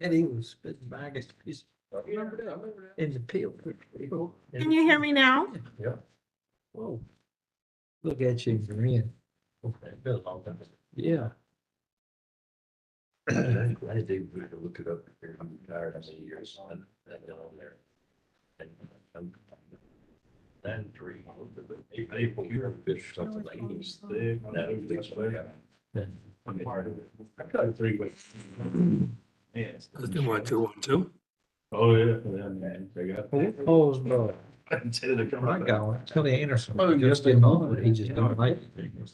And he was spitting back at his, Remember that, I remember in the field. Can you hear me now? Whoa. Look at you, you're in. that. Been a long time. Yeah. I did, we had to look it up, here. I'm tired of the years, and uh, that got on there. And, um, Nine, three, April, you're a bitch, something like this, thick, and that was this way. uh, I'm tired of it. I cut it three ways. Yes. Let's do one, two, one, two. Oh, yeah, and then, man, they got. Paul's brother, Until they come Oh, my out. God, Tony Anderson. Oh, yes, just they didn't know. know it. He just don't like it.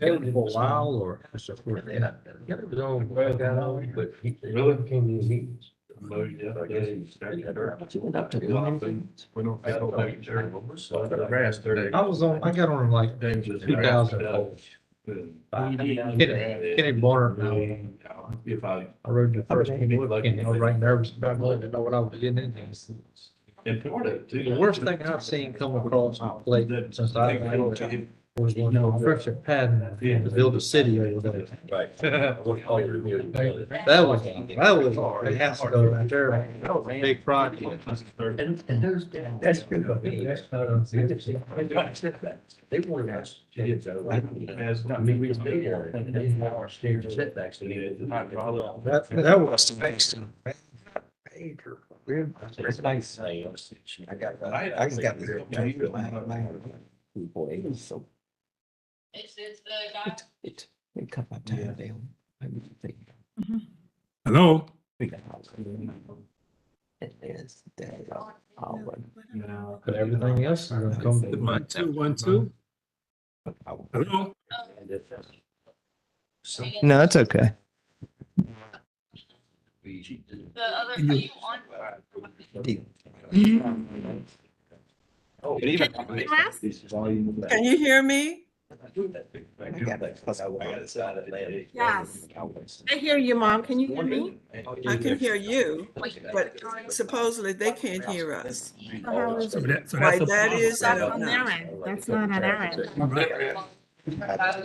Held him for a while or. Yeah, it was all. Well, got on, But but he really came to his knees. Well, yeah, I guess he started that early. you went up to. Yeah, I think- We don't. I don't think Jerry was. So I got grass there. I was on, I got on him like James is- Oh, two thousand four. He- he- Kenny, Kenny Bonner, and I- If I, I rode the I first bet one, he would like and I was it. right nervous about letting know what I was getting into. in Florida too. The worst thing I've seen come across my plate That- since I they go to was him. when construction pad in the build a city over there. Right. That That was, that was hard. It has to go right there. was Big project. And, those, that's good. That's not They wanted us. As not me, we was there. And then uh, our stairs setbacks. and it- My father- That, that was. Major. It's nice. I got, I can get there. Boy, it's so. It's, it's the guy. It, it cut my time down. I was thinking, Hello? it is dead. I'll No. win. But everything else is gonna come. to- One, two, one, two. Hello? So. No, that's okay. The other, are you on? Oh, Can I ask? This is all you. Can you hear me? I do that thing. I do that thing. I got a side of that. Yes. I hear you, Mom. Can you hear me? I I can hear you, but suppose. supposedly they can't hear us. So that- so Why that's a that problem. is, I don't on know. their end. That's not on our end. All right. Shaft, I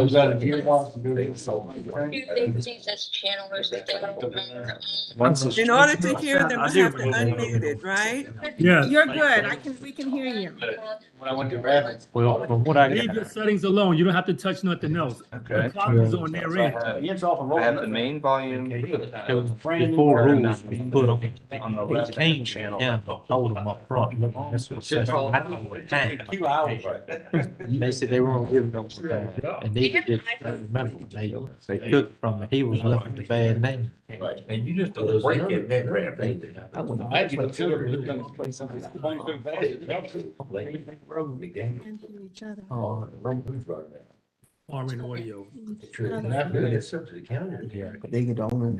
was out of gearbox Do you think gearbox. Jesus channel or something? In order to hear them, I have to unmute it, right? Yes. You're good. I can, we can hear you. When I went to rabbits. Well, from what I. Leave your settings alone. You don't have to touch nothing else. The clock is on their end. I have the main volume. Before rules we put on, on the left hand channel, yeah, hold them up front. Two hours. They said they weren't giving them, some time, and they did, I remember, they, they took from, he was left the bad name. And you just. Break it, that rap. I wouldn't- Can hear each other. Oh, Foreign audio. They get on and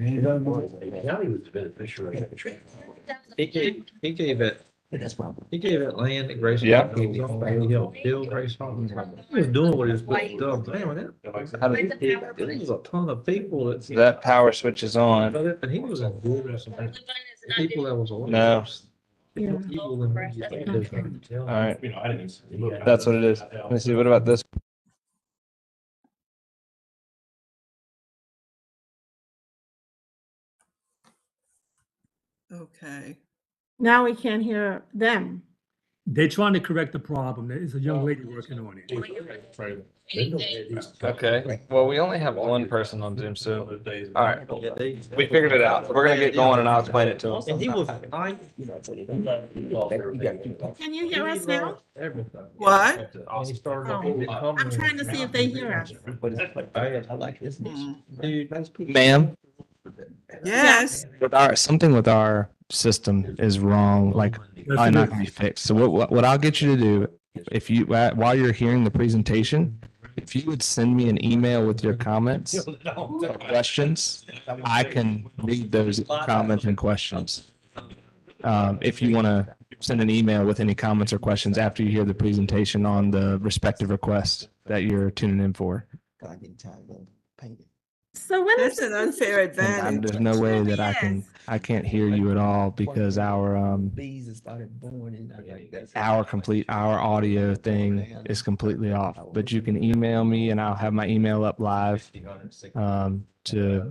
He gave, he gave it, that's why. he gave it land to Grayson. Yeah. He was on Bailey Hill, Bill Grayson. He was doing what he was supposed to do, man, when How do that, there was a ton of people that. That power switch is on. And he was in good or something. The people that was. on- No. Yeah. People that- All right. You know, I didn't. That's what it is. Let me see. What about this? Okay. Now we can't hear them. They're trying to correct the problem. There's a young lady working on it. Okay. Well, we only have one person on Zoom, so all right. Yeah, they- We figured it out. We're gonna get going and I'll explain it to him. And he was, I. Can you hear us now? Everything. What? And he started. Oh. I'm trying to see if they hear us. Oh, I like this. Mm. Dude, that's. Ma'am, Yes, with our something with our system is wrong. Like probably not gonna be fixed. So what- what what I'll get you to do if you wh- while you're hearing the presentation, if you would send me an email with your comments or questions, I can read those comments and questions. Um, if you want to send an email with any comments or questions after you hear the presentation on the respective request that you're tuning in for. So when is that's an this? unfair And I'm- advantage. there's no way that I can I can't hear you at all because our um Bees started born uh, our complete our audio thing is completely off. But you can email me and I'll have my email up live um, to